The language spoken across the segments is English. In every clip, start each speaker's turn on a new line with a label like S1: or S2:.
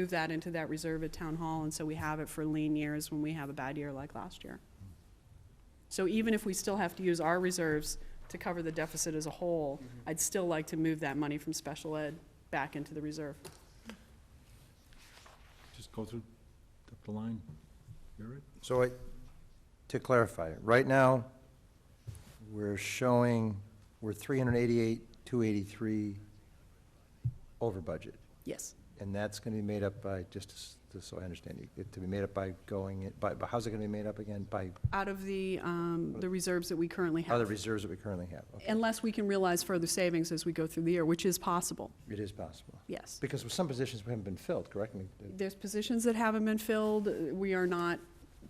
S1: move that into that reserve at town hall, and so we have it for lean years when we have a bad year like last year. So even if we still have to use our reserves to cover the deficit as a whole,
S2: Mm-hmm.
S1: I'd still like to move that money from special ed back into the reserve.
S3: Just go through, up the line. You're it?
S2: So I, to clarify, right now, we're showing, we're three hundred eighty-eight, two eighty-three over budget.
S1: Yes.
S2: And that's gonna be made up by, just s- just so I understand, it- it, to be made up by going, it- by, but how's it gonna be made up again? By
S1: Out of the, um,
S2: Uh,
S1: the reserves that we currently
S2: other
S1: have.
S2: reserves that we currently have? Okay,
S1: Unless we can realize further savings as we go through the year, which is possible,
S2: It is possible.
S1: yes.
S2: Because with some positions, we haven't been filled, correct me?
S1: There's positions that haven't been filled. We are not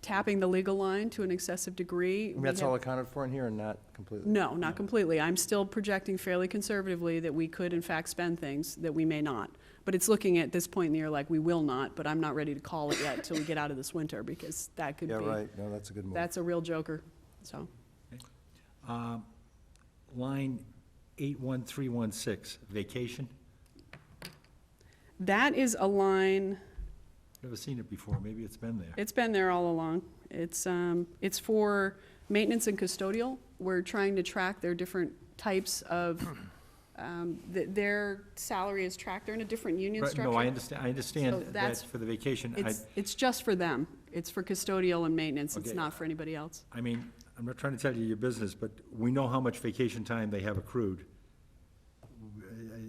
S1: tapping the legal line to an excessive degree.
S2: I mean,
S1: We
S2: That's
S1: have-
S2: all accounted for in here and not completely?
S1: No, not completely. I'm still projecting fairly conservatively that we could in fact spend things that we may not. But it's looking at this point in the year like we will not, but I'm not ready to call it yet till we get out of this winter because that could
S2: Yeah,
S1: be,
S2: right, no, that's a good move.
S1: that's a real joker, so.
S3: Um, Line 81316, vacation.
S1: That is a line,
S3: Never seen it before, maybe it's been there.
S1: it's been there all along. It's, um, it's for maintenance and custodial. We're trying to track their different types of, um, th- their salary is tracked. They're in a different union
S3: Right,
S1: structure.
S3: No, I understand, I understand
S1: So that's-
S3: that's for the vacation. I,
S1: It's, it's just for them. It's for custodial and maintenance. It's
S3: Okay.
S1: not for anybody else.
S3: I mean, I'm not trying to tell you your business, but we know how much vacation time they have accrued. I I-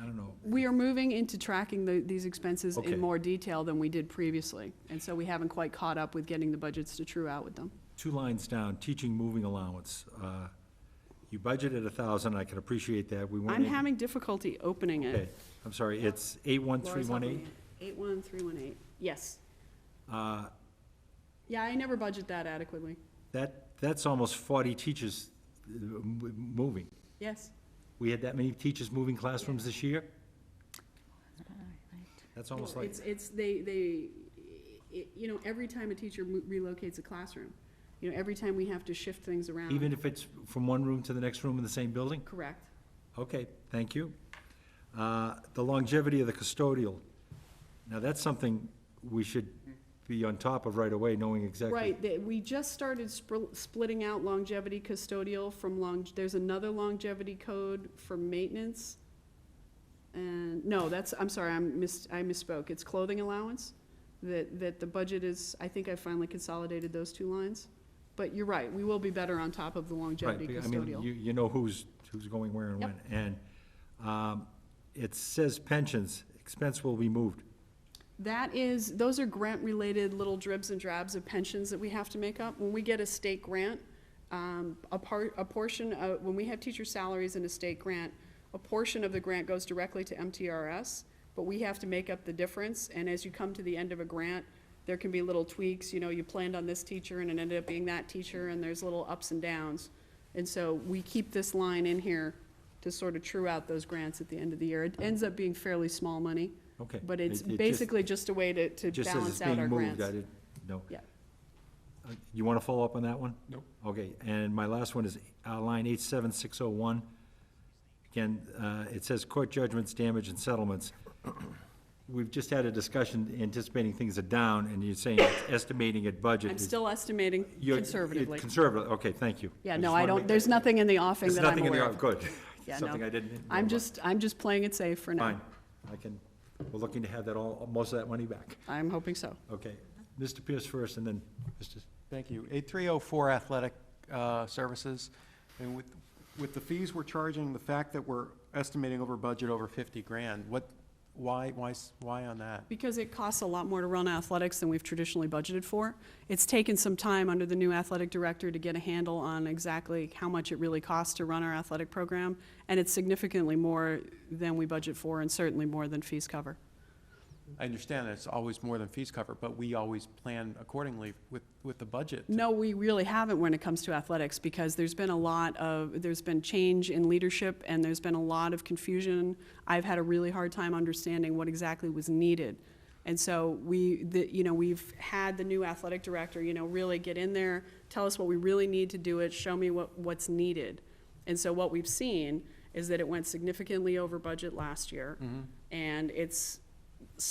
S3: I don't know.
S1: We are moving into tracking the, these expenses
S3: Okay.
S1: in more detail than we did previously. And so we haven't quite caught up with getting the budgets to true out with them.
S3: Two lines down, teaching moving allowance. Uh, You budgeted a thousand, I can appreciate that, we weren't.
S1: I'm
S3: able-
S1: having difficulty opening
S3: Okay,
S1: it.
S3: I'm sorry, it's 81318.
S1: Eight one three one eight, yes.
S3: Uh,
S1: Yeah, I never budget that adequately.
S3: That, that's almost 40 teachers uh, m- moving.
S1: Yes,
S3: We had that many teachers moving classrooms this year? That's almost like,
S1: it's, it's, they, they, it- you know, every time a teacher mo- relocates a classroom, you know, every time we have to shift things around.
S3: even if it's from one room to the next room in the same building?
S1: Correct.
S3: Okay, thank you. Uh, The longevity of the custodial, now that's something we should be on top of right away, knowing exactly.
S1: Right, that, we just started spr- splitting out longevity custodial from long, there's another longevity code for maintenance. And, no, that's, I'm sorry, I'm mis, I misspoke, it's clothing allowance, that, that the budget is, I think I finally consolidated those two lines. But you're right, we will be better on top of the
S3: Right,
S1: longevity
S3: because, I mean,
S1: custodial.
S3: you, you know who's, who's going where and when.
S1: Yep.
S3: And um, it says pensions, expense will be moved.
S1: That is, those are grant-related little dribs and drabs of pensions that we have to make up. When we get a state grant, um, a part, a portion of, when we have teacher salaries in a state grant, a portion of the grant goes directly to MTRS, but we have to make up the difference. And as you come to the end of a grant, there can be little tweaks, you know, you planned on this teacher and it ended up being that teacher, and there's little ups and downs. And so we keep this line in here to sort of true out those grants at the end of the year. It ends up being fairly small money.
S3: Okay.
S1: But it's
S3: It- it just-
S1: basically just a way to,
S3: It
S1: to
S3: Just says it's
S1: balance out our
S3: being moved,
S1: grants.
S3: I didn't, no.
S1: Yeah.
S3: Uh, You want to follow up on that one?
S4: Nope.
S3: Okay, and my last one is uh, line 87601. Again, uh, it says court judgments, damage, and settlements. We've just had a discussion anticipating things are down, and you're saying it's estimating at budget.
S1: I'm
S3: is-
S1: still estimating
S3: you're- it-
S1: conservatively.
S3: Conservative, okay, thank you.
S1: Yeah,
S3: I
S1: no,
S3: just
S1: I
S3: wanna
S1: don't,
S3: make-
S1: there's nothing in the offing
S3: There's
S1: that I'm
S3: nothing in
S1: aware
S3: there,
S1: of.
S3: good.
S1: Yeah, no.
S3: Something I didn't. know
S1: I'm
S3: about.
S1: just, I'm just playing it safe for now.
S3: Fine, I can, we're looking to have that all, most of that money back.
S1: I'm hoping so.
S3: Okay, Mr. Pierce first, and then Mr.
S4: Thank you. 8304 Athletic uh, Services, and with, with the fees we're charging, the fact that we're estimating over budget over 50 grand, what, why, why, s- why on that?
S1: Because it costs a lot more to run athletics than we've traditionally budgeted for. It's taken some time under the new athletic director to get a handle on exactly how much it really costs to run our athletic program, and it's significantly more than we budget for, and certainly more than fees cover.
S4: I understand that it's always more than fees cover, but we always plan accordingly with, with the budget.
S1: No, we really haven't when it comes to athletics because there's been a lot of, there's been change in leadership and there's been a lot of confusion. I've had a really hard time understanding what exactly was needed. And so we, the, you know, we've had the new athletic director, you know, really get in there, tell us what we really need to do it, show me what, what's needed. And so what we've seen is that it went significantly over budget last year. And it's